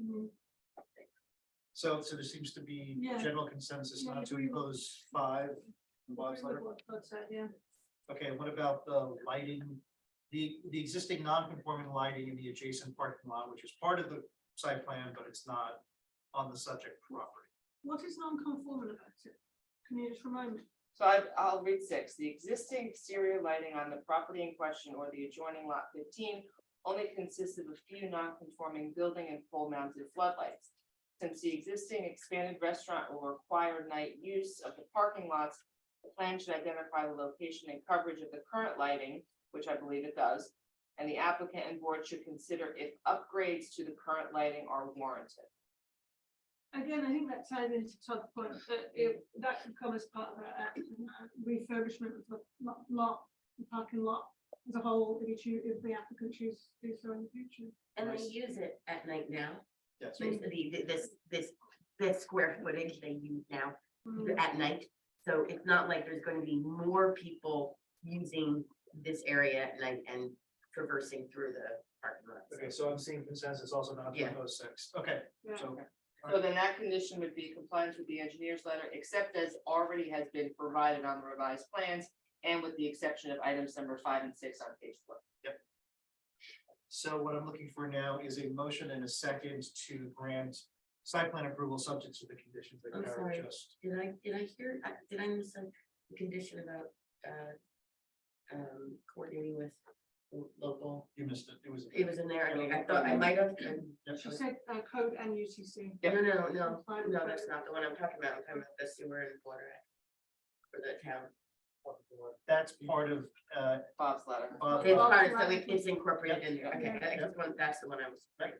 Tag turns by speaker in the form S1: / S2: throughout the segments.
S1: Mm-hmm.
S2: So, so there seems to be
S1: Yeah.
S2: general consensus
S1: Yeah, I
S2: not to
S1: agree with-
S2: impose five. in Bob's letter. Okay, what about the lighting? The, the existing non-conforming lighting in the adjacent parking lot, which is part of the site plan, but it's not on the subject property.
S1: What is non-conforming about it? Can you just remind me?
S3: So I, I'll read six, the existing exterior lighting on the property in question or the adjoining lot fifteen only consists of a few non-conforming building and pole mounted floodlights. Since the existing expanded restaurant will require night use of the parking lots, the plan should identify the location and coverage of the current lighting, which I believe it does. And the applicant and board should consider if upgrades to the current lighting are warranted.
S1: Again, I think that ties into Todd's point, that it, that could come as part of a a refurbishment of the lot, lot, the parking lot as a whole, if you choose, if the applicant chooses to do so in the future.
S4: And they
S2: Nice.
S4: use it at night now,
S2: Yes,
S4: so the, this, this, this square footage they use now
S1: Mm.
S4: at night. So it's not like there's going to be more people using this area at night and traversing through the parking
S2: okay,
S4: lot.
S2: so I'm seeing consensus also not to
S4: Yeah.
S2: impose six, okay,
S1: Yeah.
S2: so.
S3: So then that condition would be compliance with the engineer's letter, except as already has been provided on the revised plans. And with the exception of items number five and six on page four.
S2: So what I'm looking for now is a motion and a second to grant site plan approval subject to the conditions that
S4: I'm
S2: Kara
S4: sorry.
S2: just.
S4: Did I, did I hear, I- did I miss a condition about, uh, um, coordinating with the local?
S2: You missed it, it was.
S4: It was in there, I mean, I thought I might have, um,
S2: Yep.
S1: She said, uh, code and UCC.
S4: no, no, no, no, no, that's not the one I'm talking about, I'm talking about the sewer and water. act For the town.
S2: That's part of, uh,
S3: Bob's letter.
S2: Bob-
S4: It's part of- so it- it's incorporated in there, okay,
S1: Yeah.
S4: I just want, that's the one I was, right,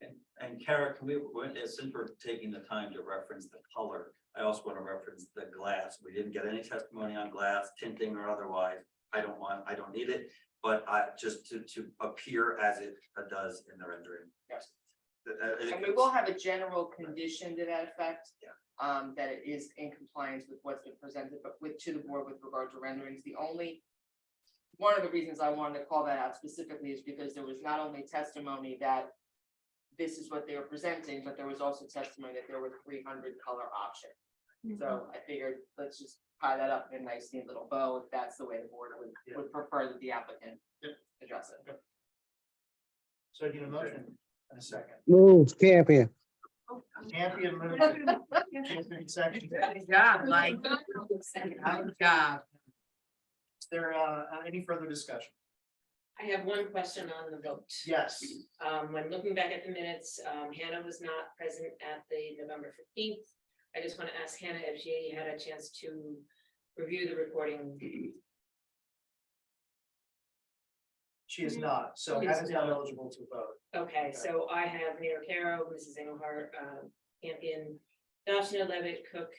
S5: And, and Kara, can we, when- uh, since we're taking the time to reference the color, I also want to reference the glass. We didn't get any testimony on glass tinting or otherwise. I don't want, I don't need it, but I, just to, to appear as it uh, does in the rendering. uh,
S3: Yes.
S5: That- that- I think
S3: And we
S5: it's-
S3: will have a general condition to that effect.
S5: Yeah.
S3: Um, that it is in compliance with what's been presented, but with, to the board with regard to renderings, the only. One of the reasons I wanted to call that out specifically is because there was not only testimony that. This is what they were presenting, but there was also testimony that there were three hundred color options.
S1: Mm-hmm.
S3: So I figured, let's just tie that up in a nice neat little bow, if that's the way the board would,
S2: Yeah.
S3: would prefer that the applicant
S2: Yep.
S3: address it.
S2: so I need a motion and a second.
S6: Move, Campion.
S1: Oh, um,
S2: Campion moved it.
S1: yeah.
S2: Campion seconded it.
S4: good job, Mike, good job.
S2: Is there, uh, any further discussion?
S7: I have one question on the vote.
S2: Yes,
S7: Um, when looking back at the minutes, um, Hannah was not present at the November fifteenth. I just want to ask Hannah if she had a chance to review the recording.
S2: she is not, so
S7: She is
S2: Hannah's not
S7: not.
S2: eligible to vote.
S7: Okay, so I have Mayor Caro, Mrs. Engelhardt, um, Campion, Dashna Levitt, Cook,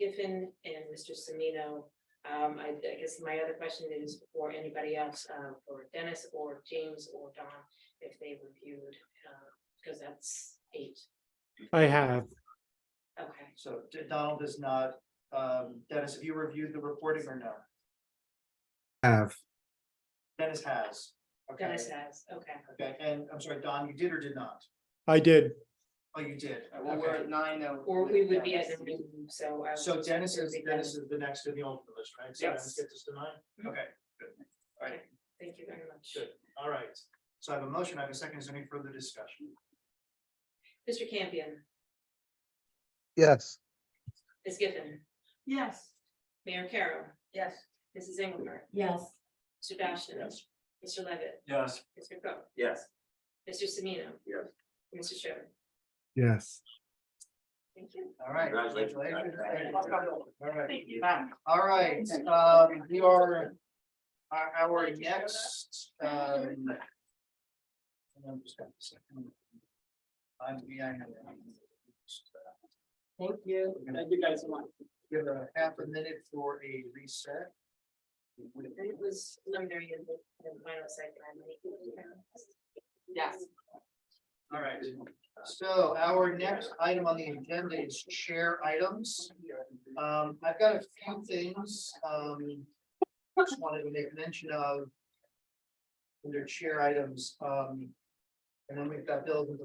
S7: Giffen, and Mr. Semino. Um, I, I guess my other question is for anybody else, uh, for Dennis or James or Don, if they reviewed, uh, because that's eight.
S8: I have,
S7: Okay.
S2: So D- Donald is not, um, Dennis, have you reviewed the reporting or no?
S6: Have.
S2: Dennis has. Okay.
S7: Dennis has, okay.
S2: Okay, and I'm sorry, Don, you did or did not?
S8: I did.
S2: Oh, you did.
S3: All right, Well, we're
S2: Okay.
S3: at nine oh.
S7: Or we would be at
S3: Dennis.
S7: the meeting, so. I
S2: So
S7: would-
S2: Dennis is,
S7: it would be
S2: Dennis is the next in the ultimate list, right? So Dennis
S7: Yes. Mm-hmm.
S2: gets us to nine? Okay,
S7: Thank you very much.
S2: good. All right. So I have a motion, I have a second. Is there any further discussion?
S7: Mr. Campion,
S6: Yes.
S7: Ms. Giffen,
S1: Yes.
S7: Mayor Carroll,
S4: Yes.
S7: Mrs. Engelhardt,
S4: Yes.
S7: Mr. Dashna, Mr. Levitt,
S5: Yes.
S7: Mr. Cook,
S5: Yes.
S7: Mr. Semino.
S5: Yes.
S7: Mr. Sherman.
S6: Yes.
S7: Thank you.
S2: All right.
S5: Congratulations.
S2: All right.
S3: Thank you. Bye.
S2: All right, um, we are, our, our next, um. and I'm just gonna second. I'm behind.
S4: Thank you.
S2: Thank you guys so much. Give a half a minute for a reset.
S7: And it was preliminary and and final site plan.
S3: Yes.
S2: All right, so our next item on the agenda is chair items. Um, I've got a few things, um, just wanted to make mention of. Under chair items, um, and then we've got bills and